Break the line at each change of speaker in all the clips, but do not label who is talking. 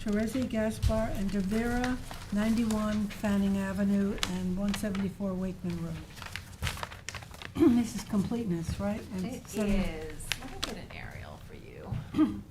Teresi Gaspar and De Vera, 91 Fanning Avenue and 174 Wakeman Road. This is completeness, right? And
It is, let
seven-
me get an aerial for you.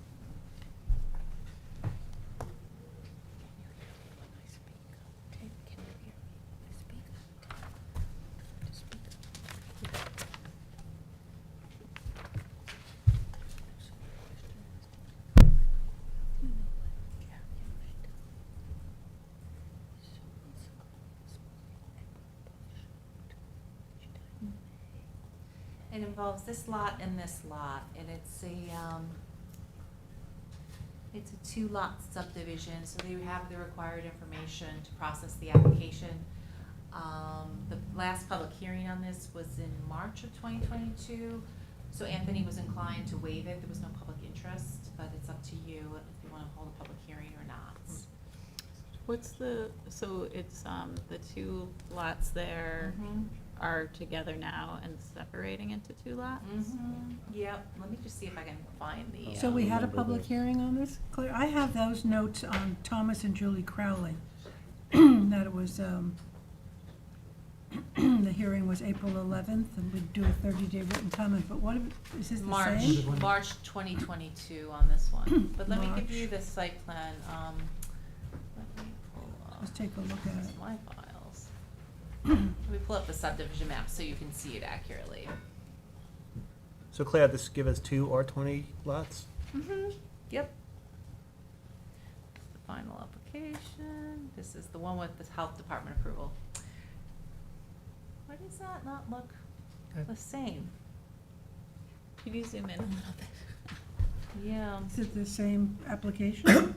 It involves this lot and this lot, and it's a, um, it's a two-lot subdivision, so they have the required information to process the application. Um, the last public hearing on this was in March of twenty twenty-two, so Anthony was inclined to waive it, there was no public interest, but it's up to you if you wanna hold a public hearing or not.
What's the, so it's, um, the two lots there
Mhm.
are together now and separating into two lots?
Mhm. Yep, let me just see if I can find the.
So we
um,
had a
Remember
public
this.
hearing on this? Claire, I have those notes on Thomas and Julie Crowley, that it was, um, the hearing was April 11th, and we'd do a 30-day written comment, but what, if- is this the
March,
same?
March twenty twenty-two on this one, but let me give
March.
you the site plan, um, let me pull up.
Let's take a look at
This
it.
is my files. Let me pull up the subdivision map so you can see it accurately.
So Claire, this give us two R twenty lots?
Mm-hmm, yep. The final application, this is the one with the health department approval. Why does that not look the same?
Could you zoom in a little bit?
Yeah,
Is it the same application?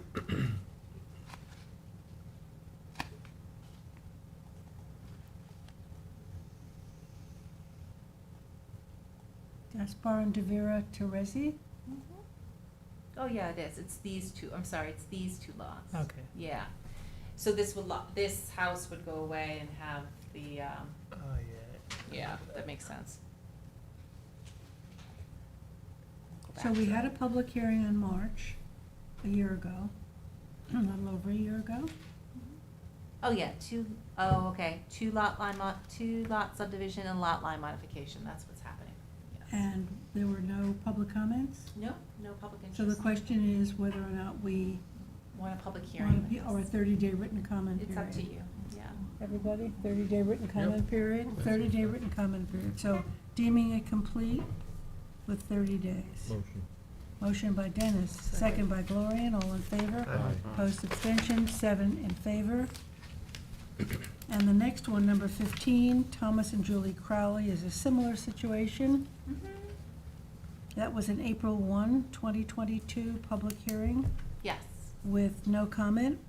Gaspar and De Vera Teresi?
Mhm. Oh, yeah, it is. It's these two, I'm sorry, it's these two lots.
Okay.
Yeah. So this would lot, this house would go away and have the, um,
Oh, yeah.
yeah, that makes sense. Go
So
back
we
to-
had a public hearing in March, a year ago, a little over a year ago.
Oh, yeah, two, oh, okay, two lot line mod, two lot subdivision and lot line modification, that's what's happening. Yeah.
And there were no public comments?
No, no public
So the
interest.
question is whether or not we
Want a public hearing?
want
with
to, or a
this.
thirty-day written comment
It's
period.
up to you, yeah.
Everybody, thirty-day written comment period,
That's
thirty-day
okay.
written comment period. So deeming it complete with thirty days.
Motion.
Motion by Dennis, second by Gloria, and all in favor. Opposed, abstentions, seven in favor. And the next one, number fifteen, Thomas and Julie Crowley, is a similar situation.
Mhm.
That was an April 1, 2022 public hearing
Yes,
with no comment.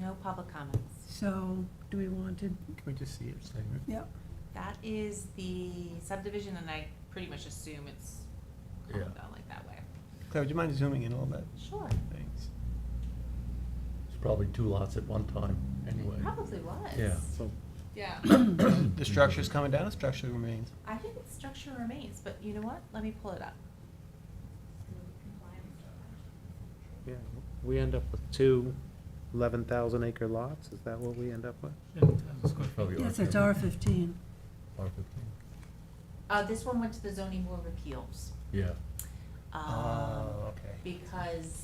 no public comments.
So do we want to,
Can we just see it?
yep,
That is the subdivision, and I pretty much assume it's kind of
Yeah.
down like that way.
Claire, would you mind zooming in a little bit?
Sure.
Thanks.
It's probably two lots at one time, anyway.
Probably was.
Yeah.
Yeah.
The structure's coming down, the structure remains.
I think the structure remains, but you know what? Let me pull it up.
Yeah, we end up with two 11,000 acre lots, is that what we end up with?
Probably
yes, it's R fifteen.
R fifteen,
Uh, this one went to the zoning board of appeals.
yeah.
um,
Oh, okay.
Because,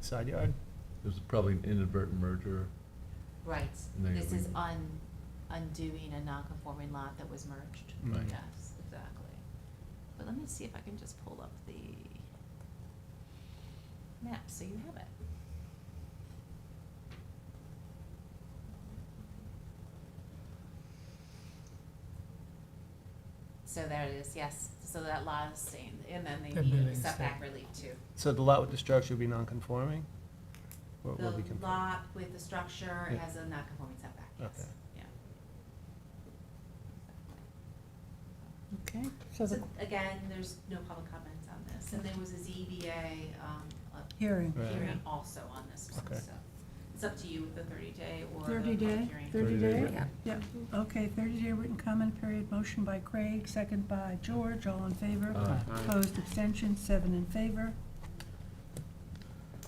Side yard?
It was probably an inadvertent merger.
right,
They
this is
agree.
un, undoing a non-conforming lot that was merged.
Right.
Yes, exactly. But let me see if I can just pull up the map, so you have it. So there it is, yes, so that lot is staying, and then they
And
need
then
a
it's
setback
there.
relief too.
So the lot with the structure would be non-conforming? Or it
The
would be conform-
lot with the structure
Yeah.
has a non-conforming setback, yes,
Okay.
yeah.
Okay, so
So
the
again, there's no public comments on this, and there was a ZBA, um, a
hearing,
Right.
hearing also on this one,
Okay.
so. It's up to you with the thirty day or the
thirty
public
day,
hearing.
thirty
30
day?
day
Yeah. Yep, okay, thirty day written comment period, motion by Craig, second by George, all in favor.
Uh,
Aye.
Opposed, abstentions, seven in favor.